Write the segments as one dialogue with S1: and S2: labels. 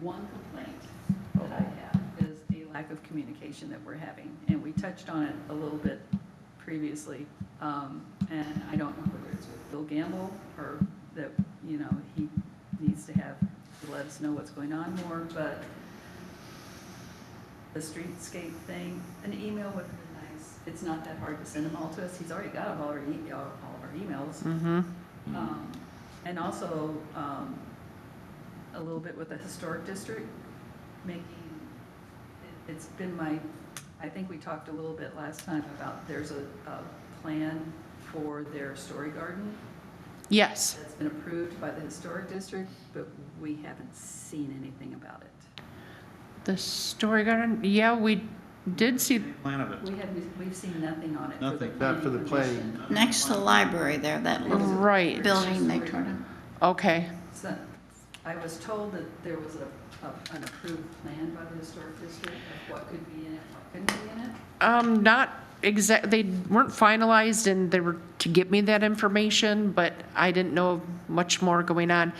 S1: one complaint that I have is the lack of communication that we're having. And we touched on it a little bit previously. Um, And I don't know whether it's with Bill Gamble or that, you know, he needs to have, to let us know what's going on more, but the streetscape thing, an email would be nice. It's not that hard to send them all to us. He's already got all our, e- all of our emails. Um, And also, um, a little bit with the historic district, making, it- it's been my, I think we talked a little bit last time about there's a, a plan for their story garden
S2: Yes.
S1: that's been approved by the historic district, but we haven't seen anything about it.
S2: The Story Garden, yeah, we did see,
S3: Plan of it.
S1: We have, we've seen nothing on it. for the
S3: Nothing.
S4: Not for the planning.
S1: commission.
S5: Next to the library there, that little
S2: right,
S5: building they tore down.
S2: okay.
S1: So, I was told that there was a, a- an approved plan by the historic district of what could be in it, what couldn't be in it.
S2: Um, not exact, they weren't finalized and they were to give me that information, but I didn't know much more going on.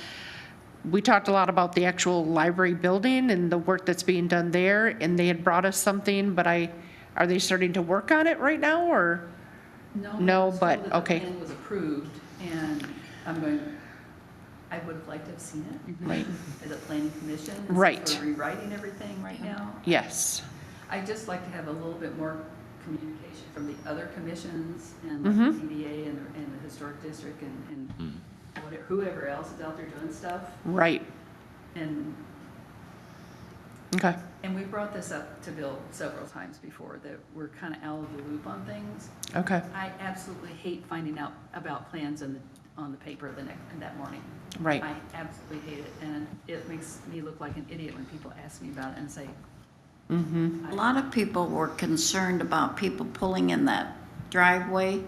S2: We talked a lot about the actual library building and the work that's being done there, and they had brought us something, but I, are they starting to work on it right now, or?
S1: No.
S2: No,
S1: I was
S2: but-
S1: told that the
S2: okay.
S1: plan was approved, and I'm going, I would have liked to have seen it
S2: Mhm. Right,
S1: as a planning commission. and since
S2: Right.
S1: We're rewriting everything right now.
S2: yes,
S1: I'd just like to have a little bit more communication from the other commissions and like
S2: Mhm.
S1: the CDA and, the- and the historic district and, and whatever- whoever else is out there doing stuff.
S2: right,
S1: And,
S2: okay,
S1: and we brought this up to Bill several times before, that we're kind of out of the loop on things.
S2: okay,
S1: I absolutely hate finding out about plans in, the- on the paper the next, that morning.
S2: right,
S1: I absolutely hate it, and it makes me look like an idiot when people ask me about it and say,
S2: mm-hmm,
S5: A lot of people were concerned about people pulling in that driveway,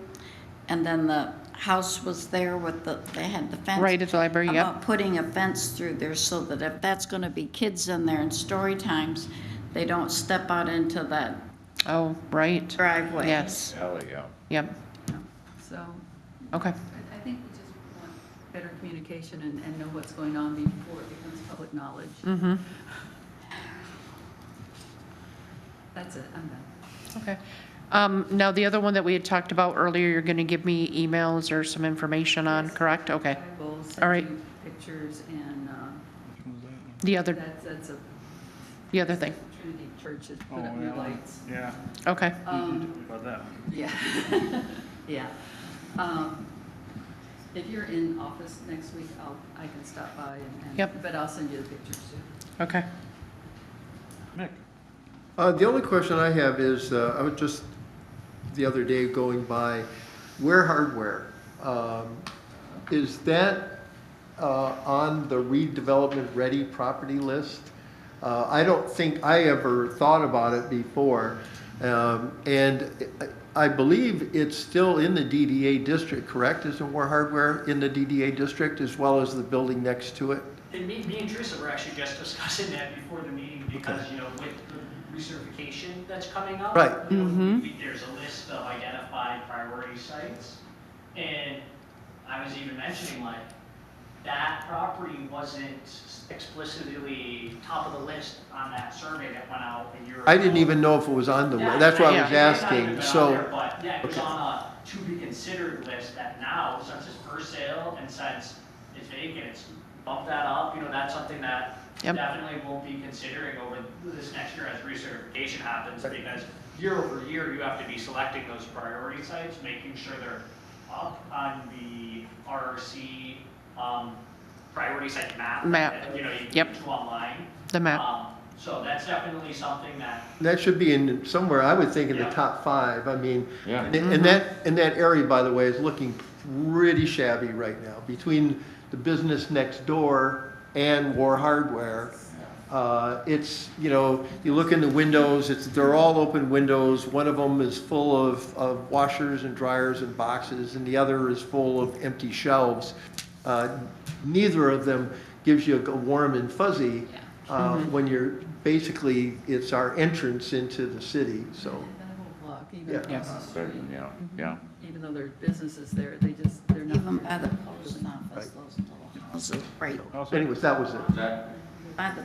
S5: and then the house was there with the, they had the fence.
S2: right at the library, yep,
S5: About putting a fence through there so that if that's gonna be kids in there and story times, they don't step out into that
S2: oh, right,
S5: driveway.
S2: yes,
S6: Alley, yeah.
S2: yep,
S1: you know, so,
S2: okay,
S1: I, I think we just want better communication and, and know what's going on before it becomes public knowledge.
S2: mm-hmm.
S1: That's it, I'm done.
S2: Okay. Um, Now, the other one that we had talked about earlier, you're going to give me emails or some information on, correct? Okay.
S1: I will
S2: All
S1: send
S2: right.
S1: you pictures, and, um,
S2: The other,
S1: that's, that's a
S2: the other thing.
S1: Trinity Church has put up new lights.
S3: Oh, Yeah.
S2: Okay,
S1: Um,
S3: About that.
S1: Yeah, yeah. Um, If you're in office next week, I'll, I can stop by and- and.
S2: Yep.
S1: But I'll send you the pictures too.
S2: okay.
S3: Mick?
S4: Uh, The only question I have is, uh, I was just the other day going by Ware Hardware. Um, Is that uh, on the redevelopment-ready property list? Uh, I don't think I ever thought about it before. Um, And I I believe it's still in the DDA district, correct? Isn't Ware Hardware in the DDA district as well as the building next to it?
S7: And me, me and Teresa were actually just discussing that before the meeting because, you know, with the recertification that's coming up.
S4: Right.
S7: you know,
S2: Mhm.
S7: we- There's a list of identified priority sites. And I was even mentioning like, that property wasn't explicitly top of the list on that survey that went out a year ago.
S4: I didn't even know if it was on the,
S7: Yeah,
S4: that's why I was
S7: yeah. It might not even
S4: asking,
S7: been
S4: so.
S7: on there, But, yeah, it was
S4: Okay.
S7: on a to be considered list that now, since it's for sale and since it's vacant, it's bumped that up, you know, that's something that
S2: Yep.
S7: definitely won't be considering over this next year as recertification happens, because year over year, you have to be selecting those priority sites, making sure they're up on the RRC, um, priority site map.
S2: Map.
S7: that, You know, you
S2: Yep.
S7: can do online.
S2: The map,
S7: Um, So that's definitely something that
S4: That should be in, somewhere, I would think in the
S7: Yeah.
S4: top five, I mean,
S6: Yeah.
S4: and and that, and that area, by the way, is looking pretty shabby right now, between the business next door and War Hardware. Uh, it's, you know, you look in the windows, it's, they're all open windows, one of them is full of, of washers and dryers and boxes, and the other is full of empty shelves. Uh, Neither of them gives you a warm and fuzzy,
S1: Yeah.
S4: uh, when you're, basically, it's our entrance into the city, so.
S1: That whole block, even
S4: Oh. Yeah.
S1: across the street,
S6: Certain, Yeah, yeah.
S1: even though there are businesses there, they just, they're not.
S5: Even by the post office, those little houses, right,
S4: Anyways, that was it.
S5: by the